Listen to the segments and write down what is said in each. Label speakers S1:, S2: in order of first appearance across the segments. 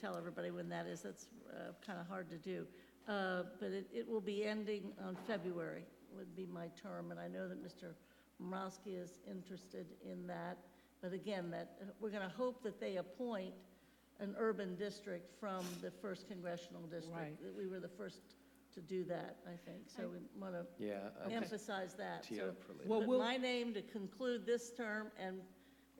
S1: tell everybody when that is, that's kind of hard to do. Uh, But it, it will be ending on February, would be my term, and I know that Mr. Morosky is interested in that. But again, that, uh, we're going to hope that they appoint an urban district from the first congressional district.
S2: Right.
S1: That We were the first to do that, I think, so we want to
S3: Yeah, I just
S1: emphasize that.
S3: tee
S1: So
S3: up for later.
S2: Well,
S1: put
S2: we'll-
S1: my name to conclude this term, and,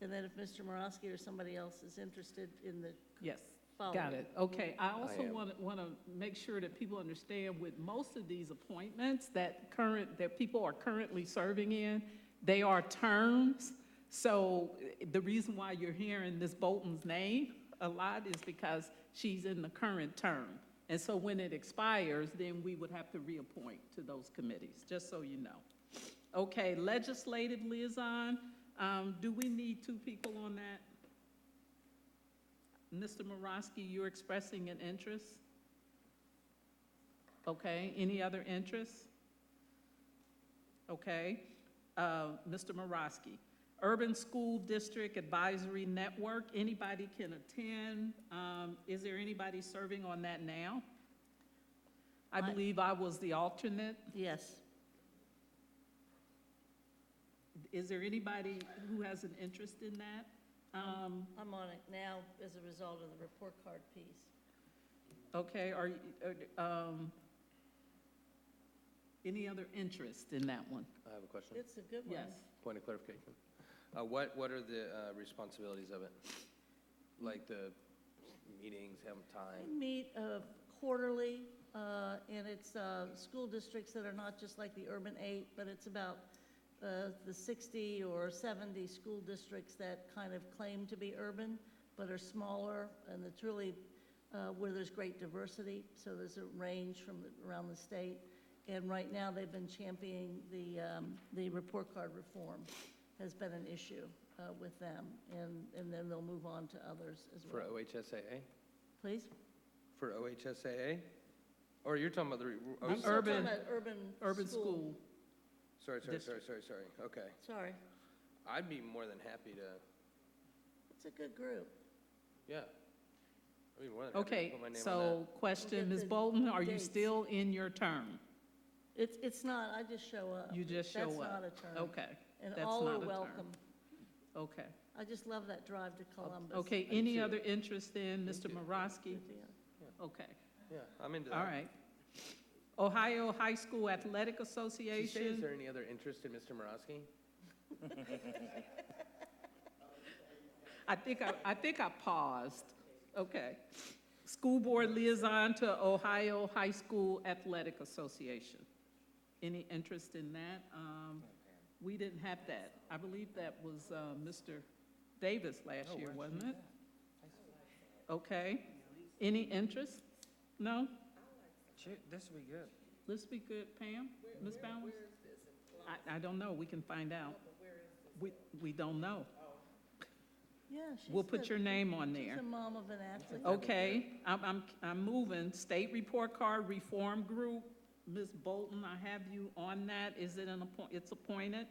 S1: and then if Mr. Morosky or somebody else is interested in the
S2: Yes,
S1: following.
S2: got it. Okay, I also
S3: am.
S2: want to, want to make sure that people understand with most of these appointments that current, that people are currently serving in, they are terms. So eh, the reason why you're hearing Ms. Bolton's name a lot is because she's in the current term. And so when it expires, then we would have to reappoint to those committees, just so you know. Okay, legislative liaison, um, do we need two people on that? Mr. Morosky, you're expressing an interest? Okay, any other interests? Okay, uh, Mr. Morosky. Urban School District Advisory Network, anybody can attend. Um, Is there anybody serving on that now? I
S1: I-
S2: believe I was the alternate.
S1: Yes.
S2: Is there anybody who has an interest in that? Um,
S1: I'm on it now as a result of the report card piece.
S2: Okay, are, you- uh, um, any other interest in that one?
S3: I have a question,
S1: It's a good one.
S2: Yes.
S3: point of clarification. Uh, What, what are the uh, responsibilities of it? Like the meetings, have
S1: We
S3: time?
S1: meet uh, quarterly, uh, and it's uh, school districts that are not just like the urban eight, but it's about uh, the 60 or 70 school districts that kind of claim to be urban, but are smaller, and it's really uh, where there's great diversity, so there's a range from around the state. And right now, they've been championing the, um, the report card reform has been an issue uh, with them, and, and then they'll move on to others as
S3: For
S1: well.
S3: OHSAA?
S1: Please?
S3: For OHSAA? Or you're talking about the, re- oh,
S2: I'm
S3: sorry,
S2: urban-
S3: sorry.
S1: Urban.
S2: Urban school,
S3: Sorry, sorry, sorry,
S2: district.
S3: sorry, sorry, okay.
S1: Sorry,
S3: I'd be more than happy to,
S1: it's a good group.
S3: yeah. I'd be more than happy to
S2: okay,
S3: put my name on
S2: so
S1: We'll get
S2: question, Ms.
S1: the
S2: Bolton, are you
S1: dates.
S2: still in your term?
S1: It's, it's not, I just show up.
S2: You just show up.
S1: Uh, That's not a term.
S2: Okay,
S1: And
S2: that's
S1: all
S2: not
S1: are
S2: a term.
S1: welcome.
S2: okay.
S1: I just love that drive to Columbus.
S2: Okay,
S3: Me
S2: any
S3: too.
S2: other interest in Mr.
S3: too.
S2: Morosky? Okay,
S3: that. Yeah, I'm into that.
S2: all right. Ohio High School Athletic
S3: Did you say, is
S2: Association,
S3: there any other interest in Mr. Morosky?
S2: I think, I I think I paused, okay. School Board Liaison to Ohio High School Athletic Association. Any interest in that? Um, We didn't have that. I believe that was uh, Mr. Davis last year, wasn't it? Okay. Any interest? No?
S4: This will be good.
S2: Let's be good, Pam, Ms. Bowers? I, I don't know, we can find out. We, we don't know.
S1: Yeah, she's.
S2: We'll put
S1: the-
S2: your name on
S1: She's
S2: there. Oh.
S1: the mom of an athlete.
S2: Okay, I'm, I'm, I'm moving. State Report Card Reform Group, Ms. Bolton, I have you on that. Is it an appoint, it's appointed?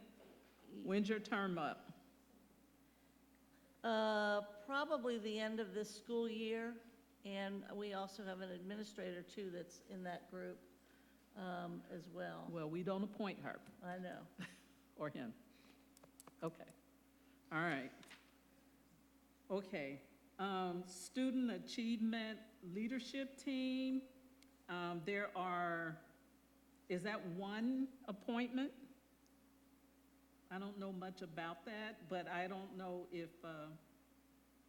S2: When's your term up?
S1: Uh, Probably the end of this school year, and we also have an administrator too that's in that group um, as well.
S2: Well, we don't appoint her
S1: I know.
S2: or him. Okay, all right. Okay, um, Student Achievement Leadership Team, um, there are, is that one appointment? I don't know much about that, but I don't know if, uh,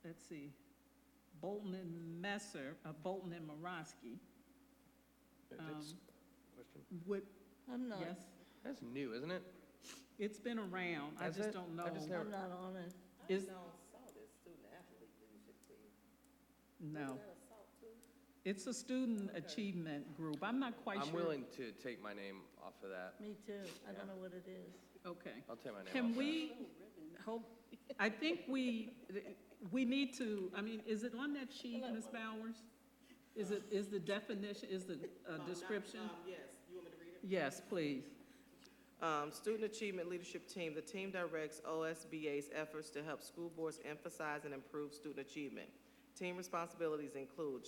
S2: let's see, Bolton and Messer, uh, Bolton and Morosky
S3: That's-
S2: Um,
S3: question.
S2: would,
S1: I'm not,
S2: yes,
S3: That's new, isn't it?
S2: it's been around, I
S3: Has
S2: just
S3: it?
S2: don't know.
S3: I just
S1: I'm not on it.
S2: Is,
S5: saw this student athlete leadership team.
S2: No. It's a student achievement group. I'm not quite sure.
S3: I'm willing to take my name off of that.
S1: Me too. I
S3: Yeah.
S1: don't know what it is.
S2: Okay.
S3: I'll take my name off
S2: Can
S3: that.
S2: we, hope, I think we, we need to, I mean, is it on that sheet, Ms. Bowers? Is it, is the definition, is the uh, description?
S5: Oh, Yes, you want me to read it?
S2: Yes, please.
S5: Um, Student Achievement Leadership Team, the team directs OSBA's efforts to help school boards emphasize and improve student achievement. Team responsibilities include